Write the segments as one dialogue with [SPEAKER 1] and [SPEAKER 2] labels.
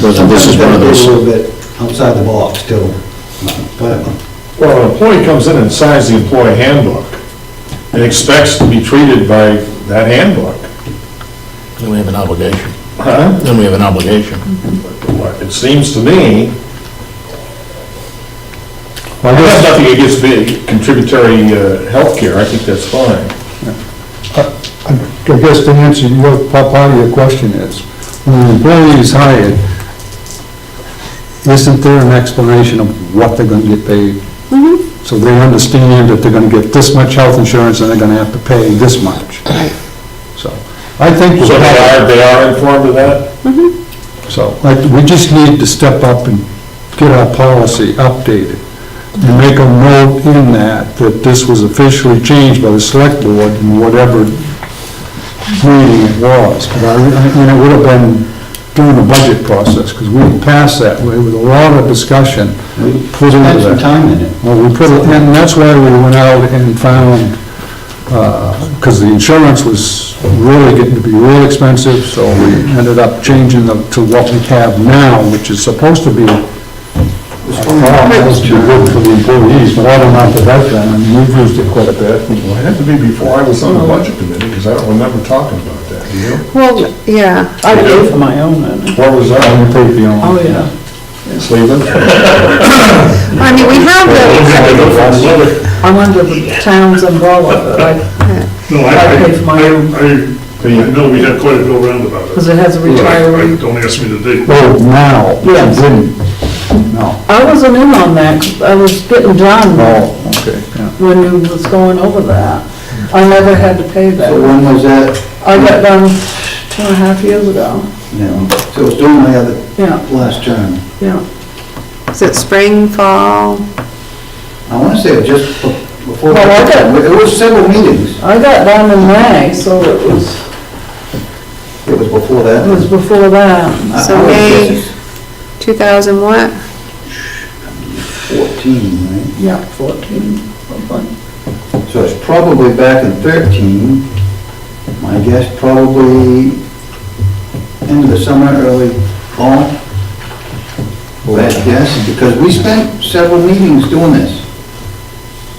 [SPEAKER 1] doesn't, this is one of
[SPEAKER 2] Sometimes
[SPEAKER 1] those.
[SPEAKER 2] gotta be A little bit outside the box still, but
[SPEAKER 3] Well, an employee comes in and signs the employee handbook and expects to be treated by that handbook.
[SPEAKER 1] Then we have an obligation.
[SPEAKER 3] Huh?
[SPEAKER 1] Then we have an obligation.
[SPEAKER 3] It seems to me, I have nothing against the contributory uh, healthcare, I think that's fine.
[SPEAKER 4] I guess to answer your, part of your question is, when an employee is hired, isn't there an explanation of what they're gonna get paid? So they understand that they're gonna get this much health insurance and they're gonna have to pay this much. So, I think.
[SPEAKER 3] So they are, they are informed of that?
[SPEAKER 4] So, like, we just need to step up and get our policy updated and make a note in that, that this was officially changed by the select board in whatever meeting it was. But I, I- and it would have been during the budget process, because we passed that way with a lot of discussion put into
[SPEAKER 2] spend some
[SPEAKER 4] that.
[SPEAKER 2] time in it.
[SPEAKER 4] Well, we put, it- and that's why we went out and found, because the insurance was really getting to be real expensive, so we ended up changing the- to what we have now, which is supposed to be, supposed to be good for the employees, but I don't know if that's done, I mean, we've used it quite a bit.
[SPEAKER 3] Well, it had to be before I was on the budget committee, because I don't remember talking about that, do you?
[SPEAKER 5] Well, yeah,
[SPEAKER 6] I paid for my own, and,
[SPEAKER 3] Where was
[SPEAKER 4] I
[SPEAKER 3] I?
[SPEAKER 4] don't think the
[SPEAKER 6] oh,
[SPEAKER 4] only-
[SPEAKER 6] yeah.
[SPEAKER 3] Cleveland?
[SPEAKER 5] I mean, we have the,
[SPEAKER 6] I went to the town's umbrella, but I,
[SPEAKER 7] No,
[SPEAKER 6] I
[SPEAKER 7] I, I,
[SPEAKER 6] paid for my own.
[SPEAKER 7] I, I know we had quite a bill roundabout.
[SPEAKER 6] because it has a
[SPEAKER 7] I-
[SPEAKER 6] retiree.
[SPEAKER 7] Don't ask me the date.
[SPEAKER 4] Oh, now, we
[SPEAKER 6] Yes.
[SPEAKER 4] didn't, no,
[SPEAKER 6] I wasn't in on that, 'cause I was getting done
[SPEAKER 4] oh, okay, yeah.
[SPEAKER 6] when you was going over that. I never had to pay
[SPEAKER 2] So
[SPEAKER 6] that.
[SPEAKER 2] when was that?
[SPEAKER 6] I got done two and a half years ago,
[SPEAKER 2] No, so it's during my other,
[SPEAKER 6] yeah,
[SPEAKER 2] last term.
[SPEAKER 6] yeah.
[SPEAKER 5] is it spring, fall?
[SPEAKER 2] I wanna say it just be- before.
[SPEAKER 6] Well, I got-
[SPEAKER 2] It was several meetings.
[SPEAKER 6] I got done in May, so it was,
[SPEAKER 2] It was before that.
[SPEAKER 6] it was before that.
[SPEAKER 2] I- I
[SPEAKER 5] So
[SPEAKER 2] would
[SPEAKER 5] May-
[SPEAKER 2] guess it's
[SPEAKER 5] 2000 what?
[SPEAKER 2] Fourteen, right?
[SPEAKER 6] Yeah, fourteen, something.
[SPEAKER 2] So it's probably back in thirteen. My guess probably end of the summer, early fall. Bad guess, because we spent several meetings doing this.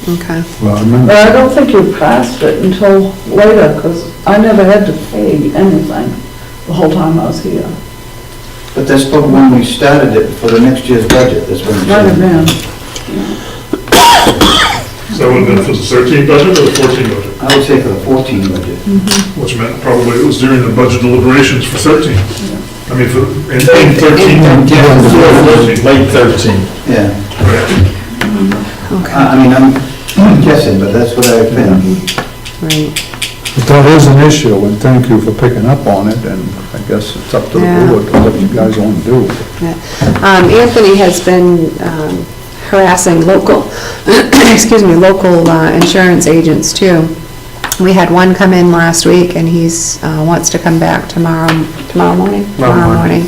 [SPEAKER 5] Okay.
[SPEAKER 4] Well, I remember,
[SPEAKER 6] But I don't think you passed it until later, because I never had to pay anything the whole time I was here.
[SPEAKER 2] But that's probably when we started it for the next year's budget, that's when. we
[SPEAKER 6] Might have
[SPEAKER 2] started.
[SPEAKER 6] been.
[SPEAKER 7] So it would've been for the thirteen budget or the fourteen budget,
[SPEAKER 2] I would say for the 14 budget.
[SPEAKER 7] which meant probably it was during the budget deliberations for thirteen. I mean, for, in in thirteen,
[SPEAKER 3] Cleveland,
[SPEAKER 7] fourteen,
[SPEAKER 3] Late 13.
[SPEAKER 2] Yeah,
[SPEAKER 7] right.
[SPEAKER 2] I I mean, I'm guessing, but that's what I've been.
[SPEAKER 5] Right.
[SPEAKER 4] but that is an issue, and thank you for picking up on it, and I guess it's up to the
[SPEAKER 5] Yeah.
[SPEAKER 4] board to what you guys want to do.
[SPEAKER 5] Um, Anthony has been um, harassing local, excuse me, local uh, insurance agents too. We had one come in last week and he's, uh, wants to come back tomorrow, tomorrow morning? Tomorrow morning.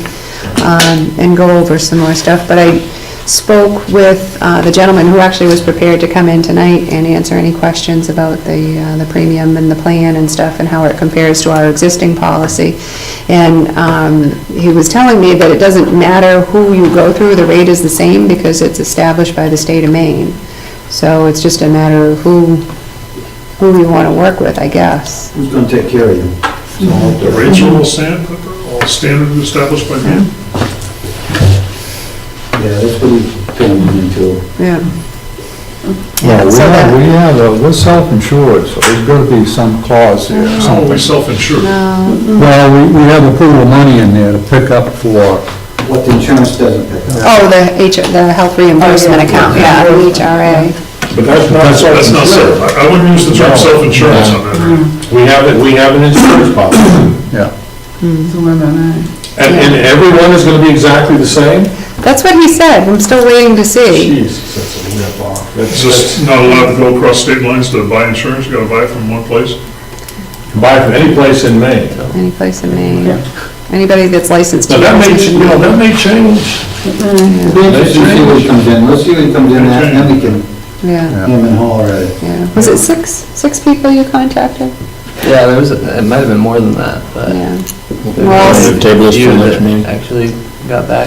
[SPEAKER 5] um, And go over some more stuff, but I spoke with uh, the gentleman who actually was prepared to come in tonight and answer any questions about the, uh, the premium and the plan and stuff and how it compares to our existing policy. And um, he was telling me that it doesn't matter who you go through, the rate is the same because it's established by the state of Maine. So it's just a matter of who, who you want to work with, I guess.
[SPEAKER 2] Who's going to take care of you? So I'll have
[SPEAKER 7] The
[SPEAKER 2] to-
[SPEAKER 7] rates are all standard, all standard established by me.
[SPEAKER 2] Yeah, that's what he's going into.
[SPEAKER 5] Yeah.
[SPEAKER 4] Well, we
[SPEAKER 5] So
[SPEAKER 4] have,
[SPEAKER 5] that-
[SPEAKER 4] we have, a- we're self-insured, so there's gotta be some clause here, or
[SPEAKER 3] Mm-hmm.
[SPEAKER 7] Always
[SPEAKER 4] something.
[SPEAKER 7] self-insured.
[SPEAKER 5] No.
[SPEAKER 4] Well, we, we have a pool of money in there to pick up for,
[SPEAKER 2] What the insurance doesn't pick up.
[SPEAKER 5] Oh, the H, the health reimbursement account, Oh, yeah, the HRA.
[SPEAKER 3] But that's not
[SPEAKER 7] That's not self, I I wouldn't use the term
[SPEAKER 3] No.
[SPEAKER 7] self-insurance on that.
[SPEAKER 3] We have, it. we have an insurance policy.
[SPEAKER 4] yeah.
[SPEAKER 3] And, and everyone is gonna be exactly the same?
[SPEAKER 5] That's what he said, I'm still waiting to see.
[SPEAKER 3] Jesus, that's a rip off. That's
[SPEAKER 7] It's just
[SPEAKER 3] just,
[SPEAKER 7] not allowed to go across state lines to buy insurance, you gotta buy it from one place.
[SPEAKER 3] buy from any place in Maine.
[SPEAKER 5] Any place in Maine, anybody that's licensed. to
[SPEAKER 3] Now, that may,
[SPEAKER 5] use it.
[SPEAKER 3] you know, that may change.
[SPEAKER 4] Mm-hmm.
[SPEAKER 2] It'll be interesting to see what comes in, let's see what comes in, and then we can
[SPEAKER 5] Yeah,
[SPEAKER 2] him and haw at it.
[SPEAKER 5] yeah. Was it six, six people you contacted?
[SPEAKER 8] Yeah, there was, it
[SPEAKER 3] Uh,
[SPEAKER 8] might have been more than that, but.
[SPEAKER 5] Yeah.
[SPEAKER 8] there
[SPEAKER 5] Well,
[SPEAKER 8] was
[SPEAKER 1] Table this for
[SPEAKER 8] you
[SPEAKER 1] next
[SPEAKER 8] that
[SPEAKER 1] meeting.
[SPEAKER 8] Actually got back